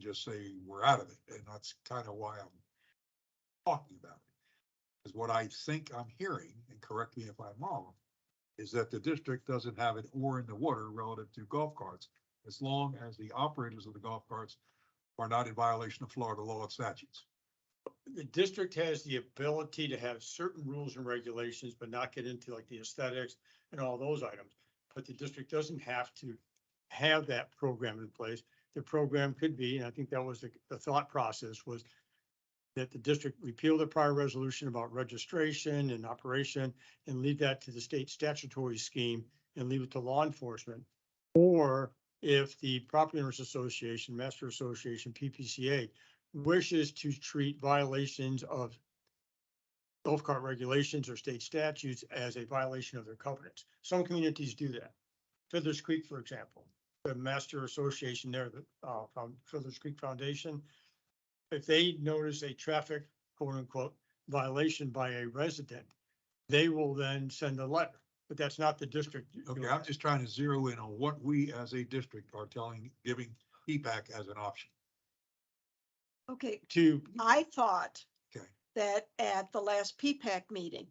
just say we're out of it. And that's kind of why I'm talking about it. Is what I think I'm hearing, and correct me if I'm wrong, is that the district doesn't have an oar in the water relative to golf carts. As long as the operators of the golf carts are not in violation of Florida law and statutes. the district has the ability to have certain rules and regulations, but not get into like the aesthetics and all those items. But the district doesn't have to have that program in place. The program could be, and I think that was the, the thought process was that the district repeal the prior resolution about registration and operation and leave that to the state statutory scheme and leave it to law enforcement. Or if the Property Owners Association, Master Association, PPCA wishes to treat violations of golf cart regulations or state statutes as a violation of their covenants. Some communities do that. Fiddler's Creek, for example, the master association there, the uh, Found- Fiddler's Creek Foundation, if they notice a traffic quote unquote violation by a resident, they will then send a letter, but that's not the district. doing Okay, I'm that. just trying to zero in on what we as a district are telling, giving EPAC as an option. Okay, To, I thought Okay. that at the last PPAC meeting,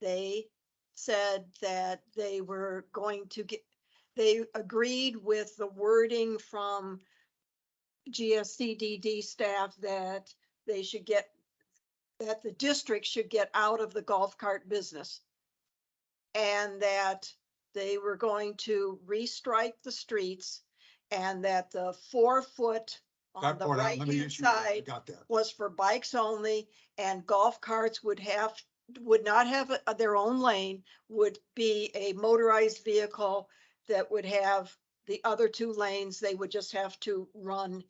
they said that they were going to get, they agreed with the wording from GSCDD staff that they should get, that the district should get out of the golf cart business. And that they were going to restrike the streets and that the four foot on That the part, I- let right me hand issue that. I side Got that. was for bikes only and golf carts would have, would not have a- their own lane, would be a motorized vehicle that would have the other two lanes. They would just have to run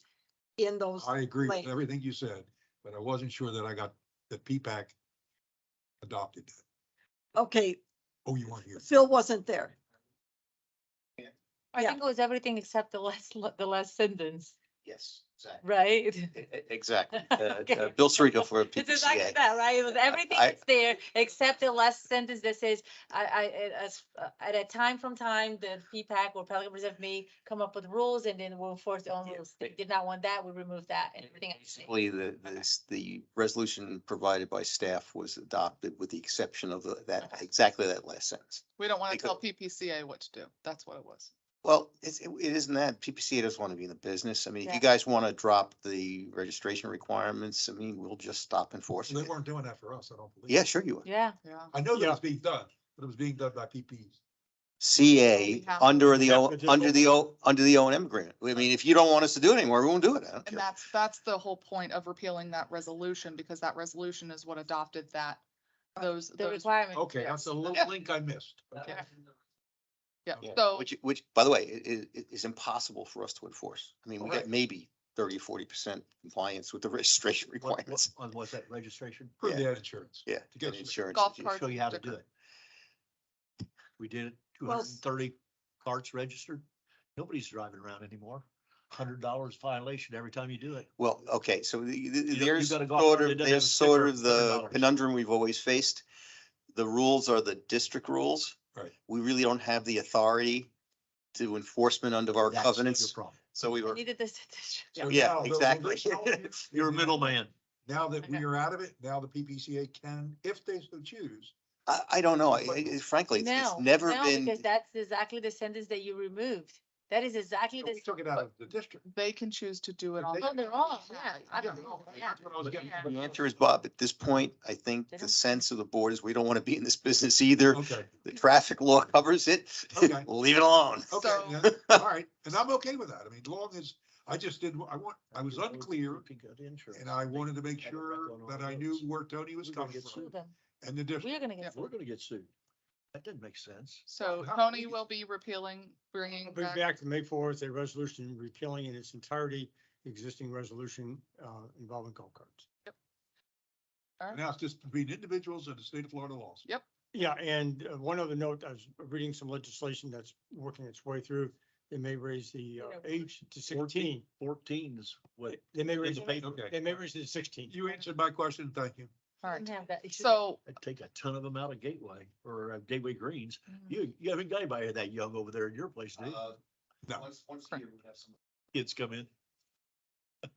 in those. I agree with lane. everything you said, but I wasn't sure that I got, that PPAC adopted that. Okay, Oh, you weren't here. Phil wasn't there. I Yeah. think it was everything except the last, lo- the last sentence, Yes, exactly. right? Exactly. Uh, uh, Okay. Bill Cerrito for It's exactly PPCA. that, right? It was I- everything I- that's there except the last sentence that says, I, I, it- as, uh, at a time from time, the feedback or Pelican Reserve may come up with rules and then we'll enforce their own Yeah, rules. they- They did not want that, we removed that and everything. else stayed. Basically, the, this, the resolution provided by staff was adopted with the exception of the- that, Okay. exactly that last sentence. We don't want to Because- tell PPCA what to do. That's what it was. Well, it's, it it isn't that. PPCA doesn't want to be in the business. I mean, if Yeah. you guys want to drop the registration requirements, I mean, we'll just stop enforcing They it. weren't doing that for us, I don't believe. Yeah, sure you would. Yeah, Yeah. I know that Yeah. it's being done, but it was being done by PPs. CA, have- under we the, have O- to just under the, overrule O under the O and M agreement. I mean, if you don't want us to do it anymore, we won't do it. I don't And care. that's, that's the whole point of repealing that resolution because that resolution is what adopted that, those, the those. requirement. Okay, that's a Yeah. little link I missed. Yeah. Okay. Yeah, Yeah, so, Which, which, by the way, it, it is impossible for us to enforce. I mean, we Correct. got maybe 30 or 40 percent compliance with the registration requirements. On was that registration? For Yeah. the ad insurance. Yeah, To get and us- insurance. Golf issues. cart- Show you how to do different. it. We did it, two Well, hundred s- and thirty carts registered. Nobody's driving around anymore. Hundred dollars violation every time you do it. Well, okay, so the- the- You- you there's got a golf sort cart of, that doesn't have a there's sort sticker, of the $100. conundrum we've always faced. The rules are the district rules. Right. We really don't have the authority to enforcement under our That's your covenants, problem. so we We were. Needed this. this- So Yeah, now, the- exactly. the- You're a middleman. Now that we are out of it, now the PPCA can, if they so choose, I, I don't know, I- I- frankly, it's- No, it's never no, been, Because that's exactly the sentence that you removed. That is exactly so the. we took it out of the district. they can choose to do it on. They- their Oh, they're own. all, yeah. Yeah, absolutely, no, that's yeah. what I was getting at. the answer is, Bob, at this point, I think They the don't- sense of the board is we don't want to be in this business either. Okay, The traffic law covers it. Okay. Leave it alone. okay, So- yeah, all right, and I'm okay with that. I mean, long as, I just didn't, I want, I was unclear and I wanted to make sure that I knew where Tony was We're gonna coming get from Sue them. and the district. We are gonna get. Yeah. sued. We're gonna get sued. That didn't make sense. So How Tony many- will be repealing, bringing Bring back back to May fourth, a resolution repealing in its entirety the existing resolution uh, involving golf carts. Now it's just between individuals and the state of Florida laws. Yeah, and uh, one other note, I was reading some legislation that's working its way through. They may raise the uh, Yeah. age 14 to sixteen. Fourteen is what. They may raise, the it- paper. they may raise it to sixteen. You answered my question, thank you. All Didn't right. have that issue. So I'd take a ton of them out of Gateway or uh, Gateway Greens. Mhm. You, you Uh, uh, haven't got anybody that young over there in your place, do you? No. Kids come in.